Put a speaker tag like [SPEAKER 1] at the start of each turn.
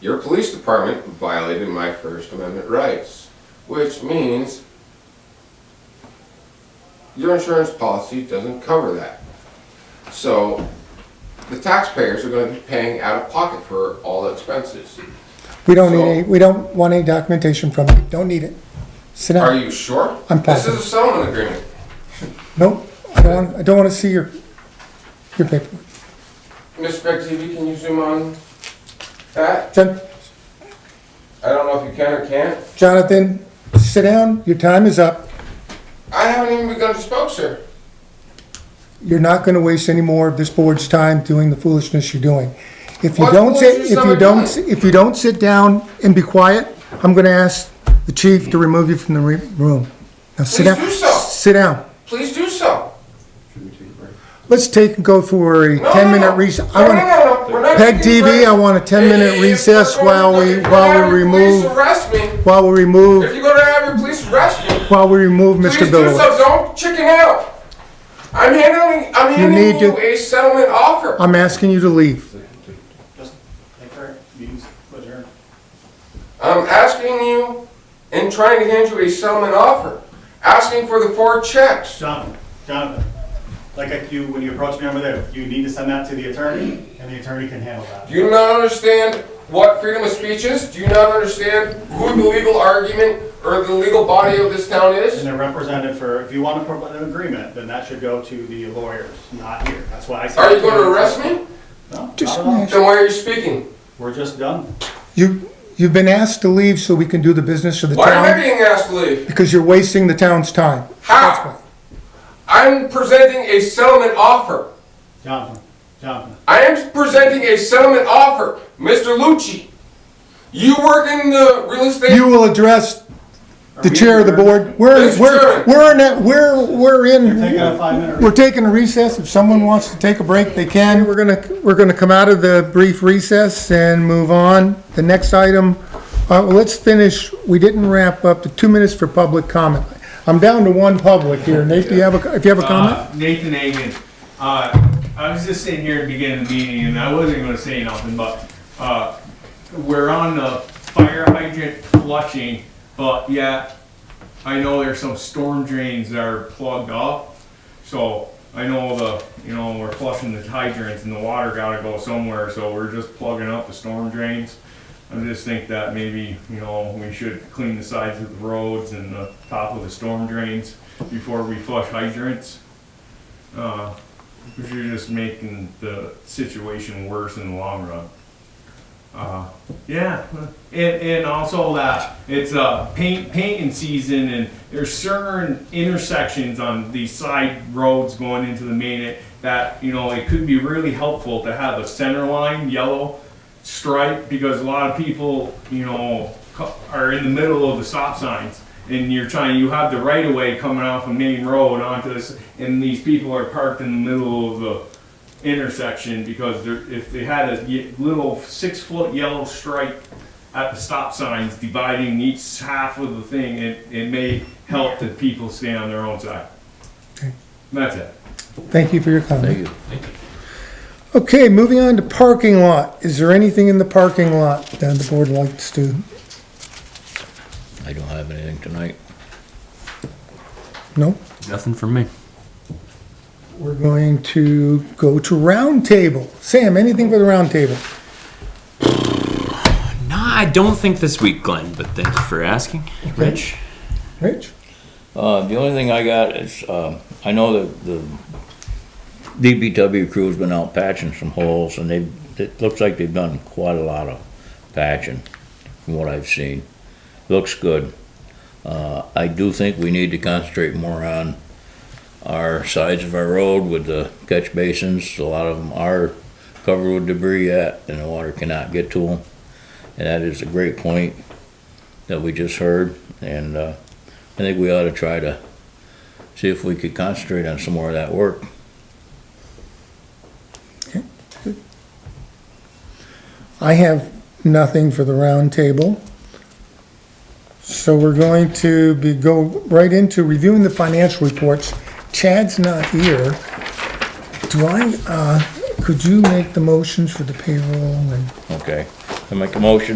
[SPEAKER 1] Your police department violated my First Amendment rights, which means your insurance policy doesn't cover that. So the taxpayers are gonna be paying out of pocket for all expenses.
[SPEAKER 2] We don't need
[SPEAKER 1] So-
[SPEAKER 2] any, we don't want any documentation from you. Don't need it. Sit
[SPEAKER 1] Are
[SPEAKER 2] down.
[SPEAKER 1] you sure?
[SPEAKER 2] I'm
[SPEAKER 1] This is
[SPEAKER 2] positive.
[SPEAKER 1] a settlement agreement.
[SPEAKER 2] Nope. I don't want, I don't want to see your, your paperwork.
[SPEAKER 1] Ms. Beck TV, can you zoom on that?
[SPEAKER 2] Jon-
[SPEAKER 1] I don't know if you can or can't.
[SPEAKER 2] Jonathan, sit down. Your time is up.
[SPEAKER 1] I haven't even begun to spoke, sir.
[SPEAKER 2] You're not going to waste any more of this board's time doing the foolishness you're doing. If you
[SPEAKER 1] What
[SPEAKER 2] don't sit,
[SPEAKER 1] foolishness
[SPEAKER 2] if
[SPEAKER 1] am
[SPEAKER 2] you
[SPEAKER 1] I
[SPEAKER 2] don't,
[SPEAKER 1] doing?
[SPEAKER 2] if you don't sit down and be quiet, I'm going to ask the chief to remove you from the re- room. Now sit
[SPEAKER 1] Please
[SPEAKER 2] down.
[SPEAKER 1] do so.
[SPEAKER 2] Sit down.
[SPEAKER 1] Please do so.
[SPEAKER 2] Let's take, go for a
[SPEAKER 1] No, no,
[SPEAKER 2] 10-minute
[SPEAKER 1] no.
[SPEAKER 2] recess.
[SPEAKER 1] No, no, no, no, we're not
[SPEAKER 2] PEG
[SPEAKER 1] taking
[SPEAKER 2] TV,
[SPEAKER 1] breaks.
[SPEAKER 2] I want a 10-minute
[SPEAKER 1] If
[SPEAKER 2] recess
[SPEAKER 1] you're
[SPEAKER 2] while
[SPEAKER 1] gonna-
[SPEAKER 2] we-
[SPEAKER 1] if you're
[SPEAKER 2] while
[SPEAKER 1] gonna
[SPEAKER 2] we
[SPEAKER 1] have your
[SPEAKER 2] remove-
[SPEAKER 1] Police arrest me.
[SPEAKER 2] While we
[SPEAKER 1] If
[SPEAKER 2] remove,
[SPEAKER 1] you're gonna have your police arrest me,
[SPEAKER 2] while we remove
[SPEAKER 1] please
[SPEAKER 2] Mr.
[SPEAKER 1] do so.
[SPEAKER 2] Billowitz.
[SPEAKER 1] Don't chicken out. I'm handling, I'm handing
[SPEAKER 2] need
[SPEAKER 1] you
[SPEAKER 2] to-
[SPEAKER 1] a settlement offer.
[SPEAKER 2] I'm asking you to leave.
[SPEAKER 3] Just take her, meetings, put her.
[SPEAKER 1] I'm asking you and trying to hand you a settlement offer, asking for the four checks.
[SPEAKER 3] Jonathan, Jonathan, like I- you, when you approached me over there, you need to send that to the attorney, and the attorney can handle that.
[SPEAKER 1] Do you not understand what freedom of speech is? Do you not understand who the legal argument or the legal body of this town
[SPEAKER 3] And
[SPEAKER 1] is?
[SPEAKER 3] they're represented for, if you want to provide an agreement, then that should go to the lawyers, not here. That's why I said.
[SPEAKER 1] Are you going to arrest me?
[SPEAKER 3] No, not
[SPEAKER 2] Just
[SPEAKER 3] at all.
[SPEAKER 1] Then why are you speaking?
[SPEAKER 3] We're just done.
[SPEAKER 2] You, you've been asked to leave so we can do the business of the
[SPEAKER 1] Why am I
[SPEAKER 2] town
[SPEAKER 1] being asked to leave?
[SPEAKER 2] because you're wasting the town's time. That's why.
[SPEAKER 1] How? I'm presenting a settlement offer.
[SPEAKER 3] Jonathan, Jonathan,
[SPEAKER 1] I am presenting a settlement offer, Mr. Lucci. You work in the real estate.
[SPEAKER 2] You will address the chair of the board. We're,
[SPEAKER 1] Mr.
[SPEAKER 2] we're,
[SPEAKER 1] Chairman.
[SPEAKER 2] we're in, that- we're, we're in.
[SPEAKER 3] taking a five-minute
[SPEAKER 2] We're taking a recess. If someone wants to take a break, they can. We're gonna, we're gonna come out of the brief recess and move on. The next item, uh, well, let's finish, we didn't wrap up the two minutes for public comment. I'm down to one public here. Nate, do you have a, if you have a comment?
[SPEAKER 4] Uh, Nathan Hagan. Uh, I was just sitting here at the beginning of the meeting and I wasn't gonna say nothing, but, uh, we're on the fire hydrant flushing, but yeah, I know there's some storm drains that are plugged up. So I know the, you know, we're flushing the hydrants and the water gotta go somewhere, so we're just plugging up the storm drains. I just think that maybe, you know, we should clean the sides of the roads and the top of the storm drains before we flush hydrants. Uh, Because you're just making the situation worse in the long run. Uh, yeah, and, and also that it's uh, paint painting season, and there's certain intersections on the side roads going into the main that you know it could be really helpful to have a center line yellow stripe because a lot of people you know co- are in the middle of the stop signs. And you're trying, you have the right of way coming off a main road onto this, and these people are parked in the middle of the intersection because there, if they had a ye- little six foot yellow stripe at the stop signs dividing each half of the thing, it, it may help the people stay on their own side.
[SPEAKER 2] Okay.
[SPEAKER 4] That's it.
[SPEAKER 2] Thank you for your comment. Okay, moving on to parking lot. Is there anything in the parking lot that the board likes to?
[SPEAKER 5] I don't have anything tonight.
[SPEAKER 2] No?
[SPEAKER 6] Nothing from me.
[SPEAKER 2] We're going to go to roundtable. Sam, anything for the roundtable?
[SPEAKER 6] No, I don't think this week, Glenn, but thank you for asking. Rich?
[SPEAKER 2] Rich?
[SPEAKER 5] Uh, the only thing I got is, um, I know that the DBW crew's been out patching some holes and they, it looks like they've done quite a lot of patching from what I've seen. Looks good. Uh, I do think we need to concentrate more on our sides of our road with the catch basins. A lot of them are covered with debris yet and the water cannot get to them. And that is a great point that we just heard and, uh, I think we ought to try to see if we could concentrate on some more of that work.
[SPEAKER 2] I have nothing for the roundtable. So we're going to be, go right into reviewing the financial reports. Chad's not here. Do I, uh, could you make the motions for the payroll and
[SPEAKER 5] Okay. I make a motion